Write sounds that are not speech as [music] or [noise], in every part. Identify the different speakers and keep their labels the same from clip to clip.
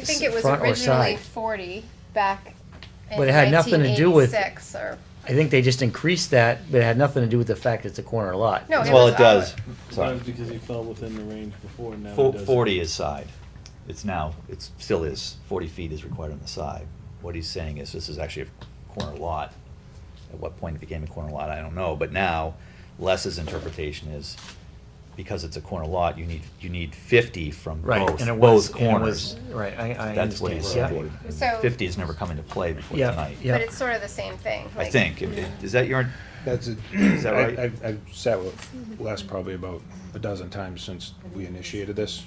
Speaker 1: I think it was
Speaker 2: Front or
Speaker 1: originally
Speaker 2: side?
Speaker 1: forty back in
Speaker 2: But it had nothing to do with-
Speaker 1: 1986 or,
Speaker 2: I think they just increased that, but it had nothing to do with the fact it's a corner lot.
Speaker 1: no, Oh, it
Speaker 3: Well,
Speaker 1: was
Speaker 3: it does.
Speaker 1: out.
Speaker 3: Sorry.
Speaker 4: Sometimes because he fell within the range before, now
Speaker 3: Fo-
Speaker 4: he doesn't.
Speaker 3: Forty is side. It's now, it still is, forty feet is required on the side. What he's saying is this is actually a corner lot. At what point it became a corner lot, I don't know, but now Les's interpretation is because it's a corner lot, you need, you need fifty from
Speaker 2: Right,
Speaker 3: both,
Speaker 2: and it was-
Speaker 3: both
Speaker 2: and it was-
Speaker 3: corners.
Speaker 2: right, I- I
Speaker 3: That's what he's
Speaker 2: understand.
Speaker 3: saying.
Speaker 1: Yeah. So-
Speaker 3: Fifty has never come into play before
Speaker 2: Yeah,
Speaker 3: tonight.
Speaker 2: yeah.
Speaker 1: But it's sort of the same thing.
Speaker 3: I
Speaker 1: like-
Speaker 3: think. If- Is that your,
Speaker 5: That's it.
Speaker 3: [clears throat] Is that right?
Speaker 5: I- I've, I've sat with Les probably about a dozen times since we initiated this,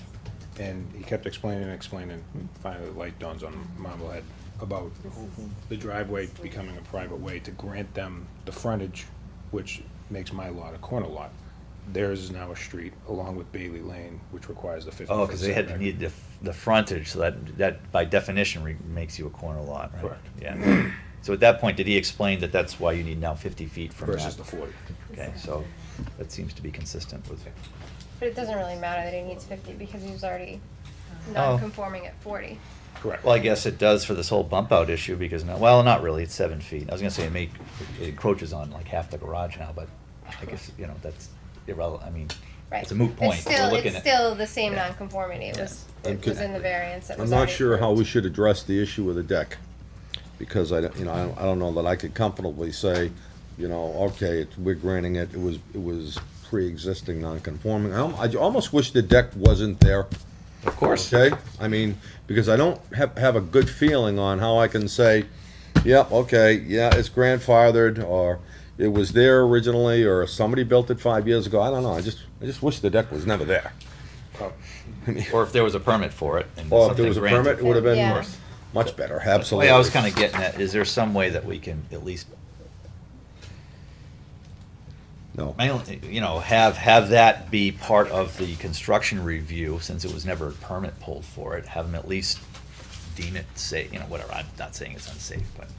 Speaker 5: and he kept explaining and explaining. Finally, the light dawns on Marblehead about the driveway becoming a private way to grant them the frontage, which makes my lot a corner lot. Theirs is now a street, along with Bailey Lane, which requires the fifty.
Speaker 3: oh,
Speaker 5: foot
Speaker 3: because they had to
Speaker 5: setback.
Speaker 3: need the, the frontage, so that, that by definition re- makes you a corner lot, right?
Speaker 5: Correct.
Speaker 3: Yeah. So at that point, did he explain that that's why you need now fifty feet from that?
Speaker 5: Versus the forty.
Speaker 3: Okay, so that seems to be consistent with,
Speaker 1: But it doesn't really matter that he needs fifty because he was already
Speaker 3: Oh.
Speaker 1: non-conforming at forty.
Speaker 5: Correct.
Speaker 3: well, I guess it does for this whole bump out issue because now, well, not really, it's seven feet. I was gonna say it make, it encroaches on like half the garage now, but I guess, you know, that's irrelevant, I mean,
Speaker 1: Right.
Speaker 3: it's a moot point.
Speaker 1: It's
Speaker 3: We're
Speaker 1: still,
Speaker 3: looking
Speaker 1: it's
Speaker 3: at-
Speaker 1: still the same
Speaker 3: Yeah.
Speaker 1: non-conformity. It
Speaker 3: Yeah.
Speaker 1: was,
Speaker 6: I'm
Speaker 1: it was
Speaker 6: con-
Speaker 1: in the variance. that
Speaker 6: I'm
Speaker 1: was
Speaker 6: not
Speaker 1: already
Speaker 6: sure how we
Speaker 1: approved.
Speaker 6: should address the issue of the deck, because I, don't- you know, I don't, I don't know that I could comfortably say, you know, okay, it's- we're granting it, it was, it was pre-existing non-conforming. I al- I almost wish the deck wasn't there.
Speaker 3: Of course.
Speaker 6: Okay, I mean, because I don't have, have a good feeling on how I can say, yep, okay, yeah, it's grandfathered, or it was there originally, or somebody built it five years ago, I don't know, I just, I just wish the deck was never there.
Speaker 3: Oh. Or if there was a permit for it and
Speaker 6: Or if there
Speaker 3: something
Speaker 6: was a permit, it
Speaker 3: granted.
Speaker 6: would have
Speaker 1: Yeah.
Speaker 6: been much better,
Speaker 3: The
Speaker 6: absolutely.
Speaker 3: way I was kinda getting at, is there some way that we can at least
Speaker 6: No.
Speaker 3: My only- you know, have, have that be part of the construction review, since it was never a permit pulled for it, have them at least deem it safe, you know, whatever, I'm not saying it's unsafe, but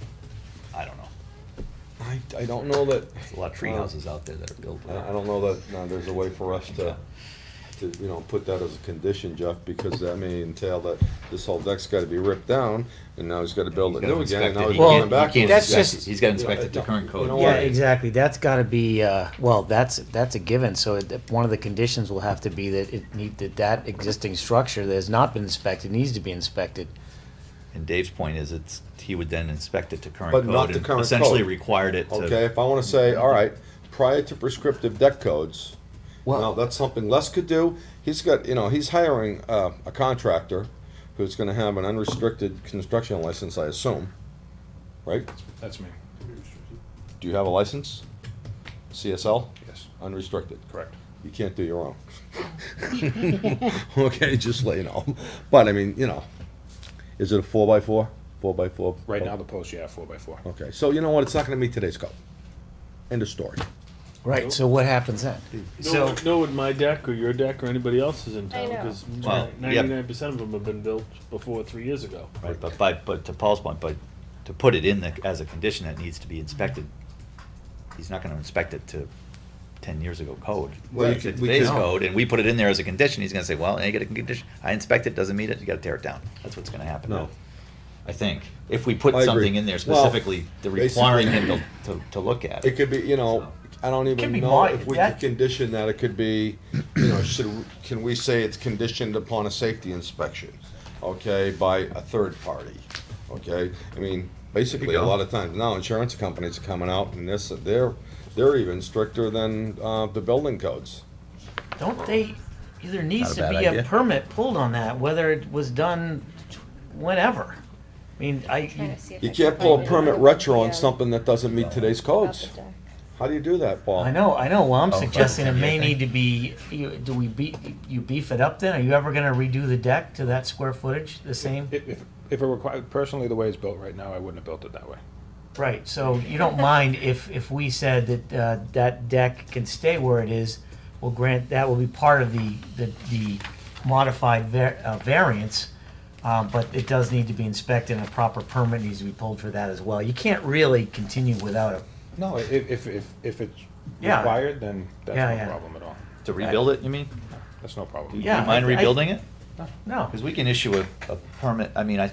Speaker 3: I don't know.
Speaker 6: I, I don't know that.
Speaker 3: There's a lot of treehouses out there that are built.
Speaker 6: I, I don't know that, no, there's a way for us to, to, you know, put that as a condition, Jeff, because that may entail that this whole deck's gotta be ripped down, and now he's gotta build it new again, and now he's
Speaker 2: Well,
Speaker 6: going back.
Speaker 2: can't- that's just-
Speaker 3: He's gotta inspect it to current
Speaker 6: You
Speaker 3: code.
Speaker 6: know
Speaker 2: Yeah,
Speaker 6: what?
Speaker 2: exactly. That's got to be, uh, well, that's, that's a given. So it- one of the conditions will have to be that it need, that that existing structure that has not been inspected needs to be inspected.
Speaker 3: And Dave's point is, it's, he would then inspect it to current
Speaker 6: But
Speaker 3: code.
Speaker 6: not to
Speaker 3: and
Speaker 6: current
Speaker 3: Essentially
Speaker 6: code.
Speaker 3: required it to.
Speaker 6: Okay, if I wanna say, all right, prior to prescriptive deck codes, now,
Speaker 2: Well,
Speaker 6: that's something Les could do, he's got, you know, he's hiring, uh, a contractor who's gonna have an unrestricted construction license, I assume, right?
Speaker 5: That's me,
Speaker 6: Do you have a license? CSL?
Speaker 5: yes,
Speaker 6: Unrestricted?
Speaker 5: correct.
Speaker 6: You can't do your own. [laughs] okay, just let you know. But I mean, you know, is it a four by four? Four by four?
Speaker 5: Right
Speaker 3: Oh.
Speaker 5: now, the post, yeah, four by four.
Speaker 6: Okay, so you know what? It's not going to meet today's code. End of story.
Speaker 2: right, so what happens then?
Speaker 4: No, one- no, with my deck or your deck or anybody else's in
Speaker 1: I
Speaker 4: town,
Speaker 1: know.
Speaker 4: because
Speaker 3: Well, yeah.
Speaker 4: ninety-nine percent of them have been built before three years ago.
Speaker 3: Right, but by, but to Paul's point, but to put it in the, as a condition that needs to be inspected, he's not gonna inspect it to ten years ago code.
Speaker 6: Well, you
Speaker 3: To
Speaker 6: could- we
Speaker 3: Today's
Speaker 6: could-
Speaker 3: code, and we put it in there as a condition, he's gonna say, well, I get a condition, I inspect it, doesn't meet it, you gotta tear it down. That's what's gonna happen.
Speaker 6: No.
Speaker 3: I think, if we put
Speaker 6: I agree.
Speaker 3: something in there
Speaker 6: Well,
Speaker 3: specifically, the
Speaker 6: basically-
Speaker 3: requiring him to, to, to look at
Speaker 6: It
Speaker 3: it.
Speaker 6: could be, you know, I don't
Speaker 2: Could
Speaker 6: even
Speaker 2: be
Speaker 6: know
Speaker 2: mod-
Speaker 6: if we
Speaker 2: that-
Speaker 6: could condition that. It could be, you know, should can we say it's conditioned upon a safety inspection? Okay, by a third party. Okay, I mean, basically, a
Speaker 3: go.
Speaker 6: lot of times now insurance companies are coming out and this they're they're even stricter than uh, the building codes.
Speaker 7: Don't they, there needs
Speaker 3: Not a bad
Speaker 7: to be a
Speaker 3: idea.
Speaker 7: permit pulled on that, whether it was done whenever. I mean,
Speaker 1: Trying
Speaker 7: I,
Speaker 1: to see if
Speaker 6: You
Speaker 1: I
Speaker 6: can't
Speaker 1: can
Speaker 6: pull
Speaker 1: find
Speaker 6: a
Speaker 1: it.
Speaker 6: permit retro on
Speaker 1: Yeah.
Speaker 6: something that doesn't meet today's
Speaker 1: About the
Speaker 6: codes.
Speaker 1: deck.
Speaker 6: How do you do that, Paul?
Speaker 7: I know, I know, well, I'm
Speaker 3: Oh,
Speaker 7: suggesting it
Speaker 3: okay,
Speaker 7: may
Speaker 3: yeah,
Speaker 7: need to be, you- do we beat, you beef it up then? Are you ever gonna redo the deck to that square footage, the same?
Speaker 5: If, if, if it required, personally, the way it's built right now, I wouldn't have built it that way.
Speaker 7: Right, so you don't mind if, if we said that, uh, that deck can stay where it is, well, grant, that will be part of the, the, the modified var- uh, variance, um, but it does need to be inspected and a proper permit needs to be pulled for that as well. You can't really continue without a,
Speaker 5: No, if, if, if, if it's
Speaker 7: Yeah.
Speaker 5: required, then that's
Speaker 7: Yeah,
Speaker 5: no
Speaker 7: yeah.
Speaker 5: problem at all.
Speaker 3: To rebuild it, you mean?
Speaker 5: That's no
Speaker 3: Do
Speaker 5: problem.
Speaker 3: you
Speaker 7: Yeah,
Speaker 3: mind
Speaker 7: I- I-
Speaker 3: rebuilding it?
Speaker 7: No.
Speaker 3: Because we can issue a, a permit, I mean, I,